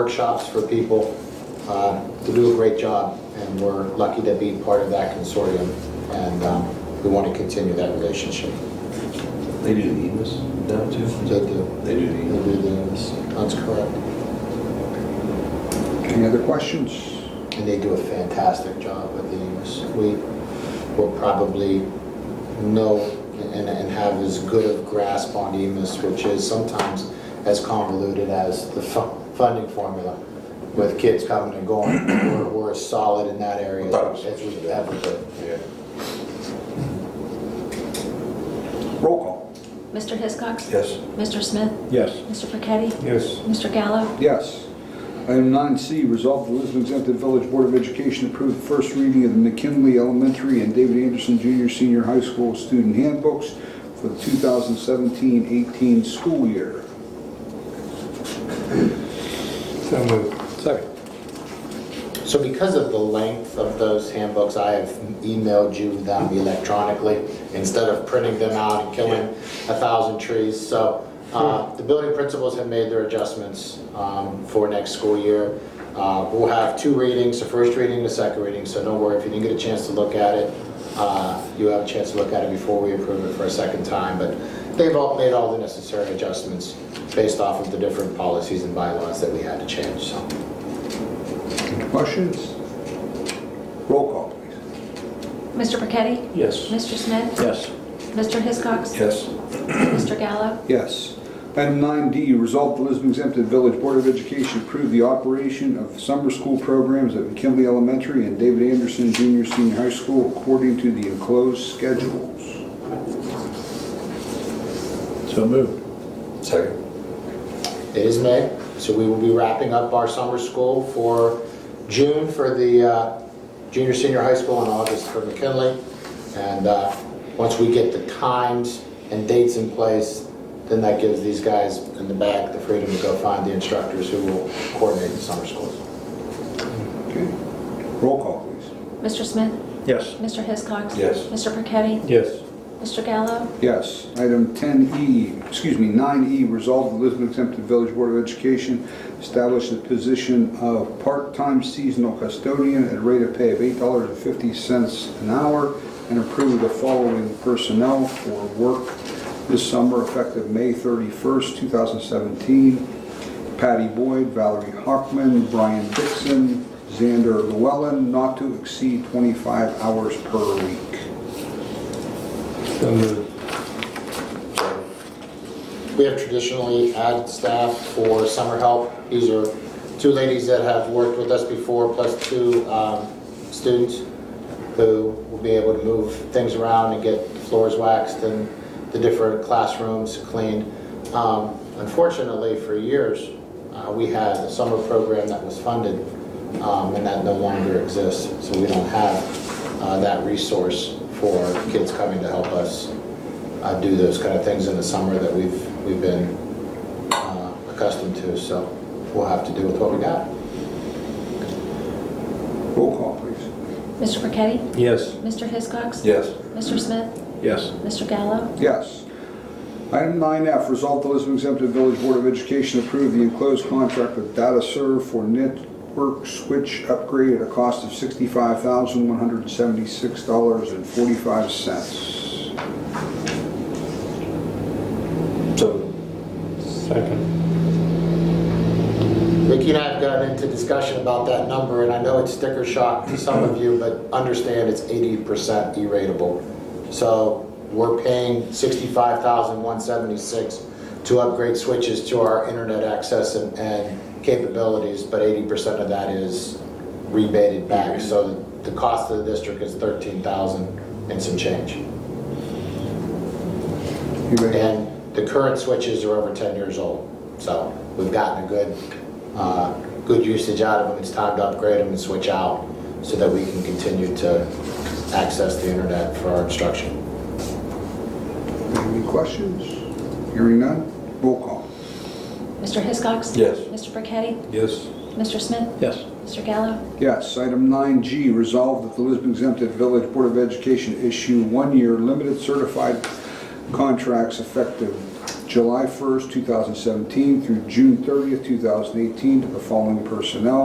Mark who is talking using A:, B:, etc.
A: workshops for people uh, to do a great job, and we're lucky to be part of that consortium, and um, we want to continue that relationship.
B: They do the EMIS now too?
A: They do.
B: They do
A: We
B: the EMIS.
A: do this. That's correct.
C: Any other questions?
A: And they do a fantastic job with the use. We will probably know and, and have as good of grasp on E EMIS, which is sometimes as convoluted as the fu- funding formula with kids coming and going. We're, we're as solid in that area as we've ever been.
B: Yeah.
C: Roll call.
D: Mr. Hiscox?
B: Yes.
D: Mr. Smith?
C: Yes.
D: Mr. Burketti?
C: Yes.
D: Mr. Gallo?
C: Yes. Item 9C, resolve the Lisbon exempted Village Board of Education approve the first reading of the McKinley Elementary and David Anderson Junior Senior High School student handbooks for the 2017-18 school year.
E: So moved.
C: Second.
A: So because of the length of those handbooks, I have emailed you them electronically instead of printing them out and killing a thousand trees. So uh, the building principals have made their adjustments um, for next school year. Uh, We'll have two readings, the first reading, the second reading, so don't worry if you didn't get a chance to look at it. uh, You have a chance to look at it before we approve it for a second time, but they've all made all the necessary adjustments based off of the different policies and bylaws that we had to change, so.
C: Questions? Roll call, please.
D: Mr. Burketti?
E: Yes.
D: Mr. Smith?
C: Yes.
D: Mr. Hiscox?
B: Yes.
D: Mr. Gallo?
C: Yes. Item 9D, resolve the Lisbon exempted Village Board of Education approve the operation of summer school programs at McKinley Elementary and David Anderson Junior Senior High School according to the enclosed schedules.
E: So moved.
B: Second.
A: It is May, so we will be wrapping up our summer school for June for the uh, junior, senior high school and August for McKinley. And uh, once we get the times and dates in place, then that gives these guys in the back the freedom to go find the instructors who will coordinate the summer schools.
C: Okay. Roll call, please.
D: Mr. Smith?
E: Yes.
D: Mr. Hiscox?
B: Yes.
D: Mr. Burketti?
E: Yes.
D: Mr. Gallo?
C: Yes. Item 10E, excuse me, 9E, resolve the Lisbon exempted Village Board of Education establish the position of part-time seasonal custodian at a rate of pay of $8.50 an hour and approve the following personnel for work this summer effective May 31st, 2017. Patty Boyd, Valerie Hockman, Brian Dixon, Xander Llewellyn, not to exceed 25 hours per week.
E: So moved.
A: We have traditionally added staff for summer help. These are two ladies that have worked with us before, plus two um, students who will be able to move things around and get the floors waxed and the different classrooms cleaned. Um, Unfortunately, for years, uh, we had a summer program that was funded, um, and that no longer exists. So we don't have uh, that resource for kids coming to help us uh, do those kind of things in the summer that we've, we've been uh, accustomed to, so we'll have to do with what we got.
C: Roll call, please.
D: Mr. Burketti?
E: Yes.
D: Mr. Hiscox?
B: Yes.
D: Mr. Smith?
E: Yes.
D: Mr. Gallo?
C: Yes. Item 9F, resolve the Lisbon exempted Village Board of Education approve the enclosed contract with DataServe for network switch upgrade at a cost of $65,176.45.
B: So.
E: Second.
A: Vicki and I have gotten into discussion about that number, and I know it's sticker shock to some of you, but understand it's 80% E-ratable. So we're paying $65,176 to upgrade switches to our internet access and- and capabilities, but 80% of that is rebated back. So the cost of the district is 13,000 and some change.
C: Anybody-
A: And the current switches are over 10 years old, so we've gotten a good, uh, good usage out of them. It's time to upgrade them and switch out so that we can continue to access the internet for our instruction.
C: Any questions? Hearing none, roll call.
D: Mr. Hiscox?
B: Yes.
D: Mr. Burketti?
E: Yes.
D: Mr. Smith?
E: Yes.
D: Mr. Gallo?
C: Yes, item 9G, resolve that the Lisbon exempted Village Board of Education issue one-year limited certified contracts effective July 1st, 2017 through June 30th, 2018, to the following personnel,